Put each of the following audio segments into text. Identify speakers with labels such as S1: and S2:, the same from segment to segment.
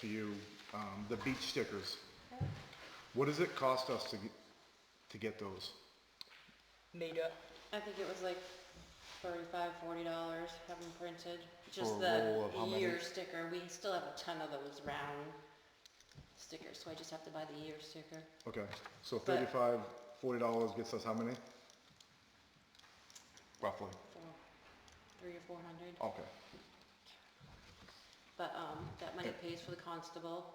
S1: to you, um, the beach stickers. What does it cost us to get, to get those?
S2: made up.
S3: I think it was like thirty-five, forty dollars, have them printed,
S1: For
S3: just
S1: a roll
S3: the
S1: of how many?
S3: year sticker, we still have a ton of those round stickers, so I just have to buy the year sticker.
S1: Okay, so thirty-five, forty dollars gets us how many? Roughly,
S3: for Three or four hundred,
S1: okay,
S3: but, um, that money
S1: Yeah.
S3: pays for the constable,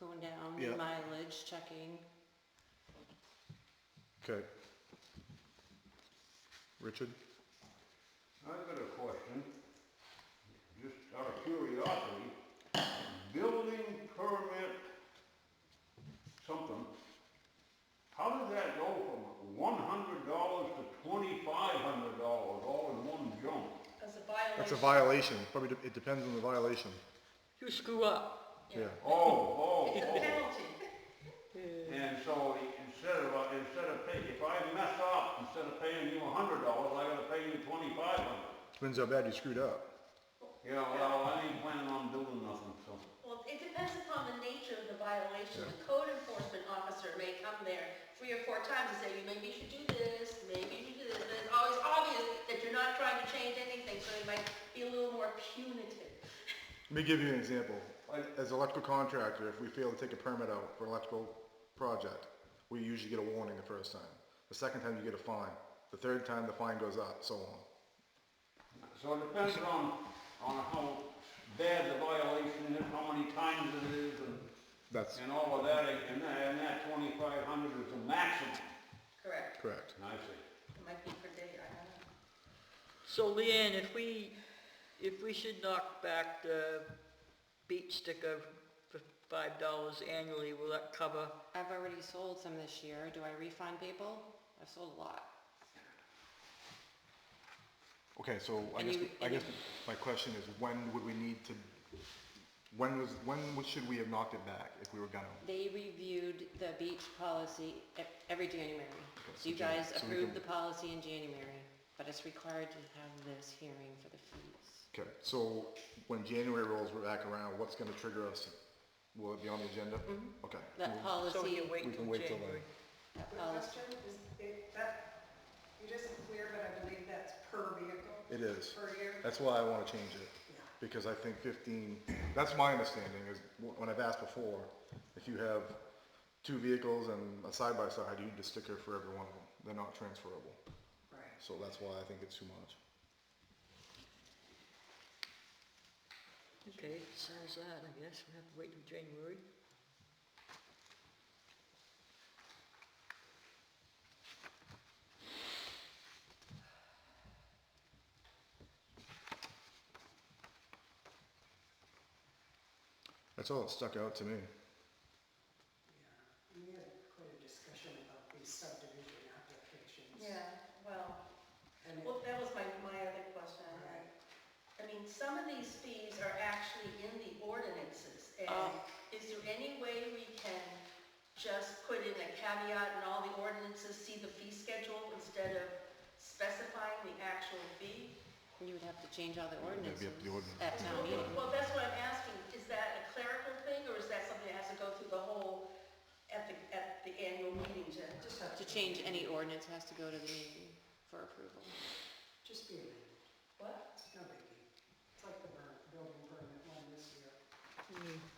S3: going down,
S1: Yeah.
S3: mileage, checking.
S1: okay. Richard?
S4: I've got a question, just out of curiosity, building permit something, how does that go from one hundred dollars to twenty-five hundred dollars all in one jump?
S5: As a
S1: That's a
S5: violation.
S1: violation, probably, de- it depends on the violation,
S2: You screw up.
S1: yeah.
S4: Oh, oh,
S5: It's a
S4: oh,
S5: penalty.
S4: and so instead of, uh, instead of pay, if I mess up, instead of paying you a hundred dollars, I gotta pay you twenty-five hundred.
S1: Depends how bad you screwed up.
S4: Yeah, well, I ain't planning on doing nothing, so.
S5: Well, it depends upon the nature of the violation. The code enforcement officer may come there three or four times and say, "You maybe you should do this, maybe you should do this. And it's always obvious that you're not trying to change anything, so they might be a little more punitive.
S1: Let me give you an example. As an electrical contractor, if we fail to take a permit out for electrical project, we usually get a warning the first time. The second time, you get a fine. The third time, the fine goes up, so on.
S4: So it depends on, on how bad the violation is, how many times it is, and,
S1: That's
S4: and all of that, and that, and that twenty-five hundred is the maximum.
S5: Correct.
S1: correct.
S4: I see.
S5: It might be per day, I don't know.
S2: So Leanne, if we, if we should knock back the beach sticker for five dollars annually, will that cover?
S3: I've already sold some this year, do I refund people? I've sold a lot.
S1: Okay, so I
S3: And
S1: guess,
S3: you-
S1: I
S3: and you-
S1: guess my question is, when would we need to, when was, when would- should we have knocked it back if we were gonna?
S3: They reviewed the beach policy e- every January.
S1: so
S3: So you
S1: Jan-
S3: guys
S1: so we
S3: approved
S1: can-
S3: the policy in January, but it's required to have this hearing for the fees.
S1: Okay, so when January rolls back around, what's gonna trigger us? Will it be on the agenda? Okay.
S3: Mm-hmm. That
S1: we'll-
S2: So we
S3: policy,
S2: can wait
S1: We
S2: till
S1: can wait till
S2: January.
S1: then.
S3: that
S6: The
S3: policy,
S6: question is, it, that, it isn't clear, but I believe that's per vehicle.
S1: It is.
S6: Per year.
S1: That's why I wanna change it, because I think fifteen, that's my understanding, is wh- when I've asked before, if you have two vehicles and a side-by-side, you need a sticker for every one of them, they're not transferable,
S6: Right.
S1: so that's why I think it's too much.
S2: Okay, sounds that, I guess, we have to wait till January.
S1: That's all that stuck out to me.
S6: Yeah. We had quite a discussion about these subdivision applications.
S5: Yeah, well,
S6: And it-
S5: well, that was my, my other question.
S6: Right.
S5: I mean, some of these fees are actually in the ordinances, and
S3: Oh.
S5: is there any way we can just put in a caveat in all the ordinances, see the fee schedule instead of specifying the actual fee?
S3: you would have to change all the
S1: That'd
S3: ordinances
S1: be up to the ordinance.
S3: at town meeting.
S5: Well, that's what I'm asking, is that a clerical thing, or is that something that has to go through the whole, at the, at the annual meeting to?
S6: Just have
S3: To change any ordinance has to go to the meeting for approval.
S6: Just be amended.
S5: What?
S6: It's no biggie. It's like the burn, building permit one this year.
S5: Okay.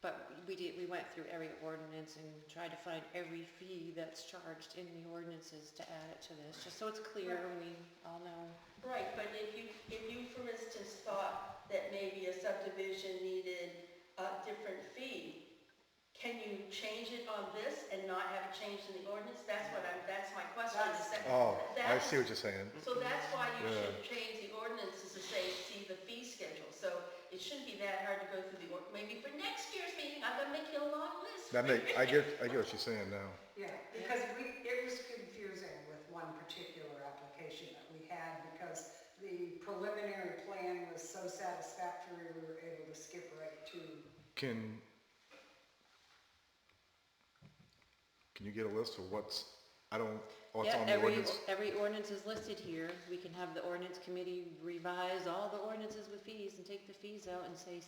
S3: But we did, we went through every ordinance and tried to find every fee that's charged in the ordinances to add it to this, just so it's clear and we all know.
S5: Right, but if you, if you, for instance, thought that maybe a subdivision needed a different fee, can you change it on this and not have it changed in the ordinance? That's what I'm, that's my question. is that-
S1: Oh, I
S5: that's-
S1: see what you're saying.
S5: So that's why you
S1: Yeah.
S5: should change the ordinances to say, see the fee schedule. So it shouldn't be that hard to go through the, ord- maybe for next year's meeting, I'm gonna make you a long list.
S1: That make, I get, I get what you're saying now.
S6: Yeah, because we, it was confusing with one particular application that we had because the preliminary plan was so satisfactory, we were able to skip right to
S1: Can, can you get a list of what's I don't, oh, it's
S3: Yeah,
S1: on the
S3: every,
S1: ordinance.
S3: every ordinance is listed here. We can have the ordinance committee revise all the ordinances with fees and take the fees out and say,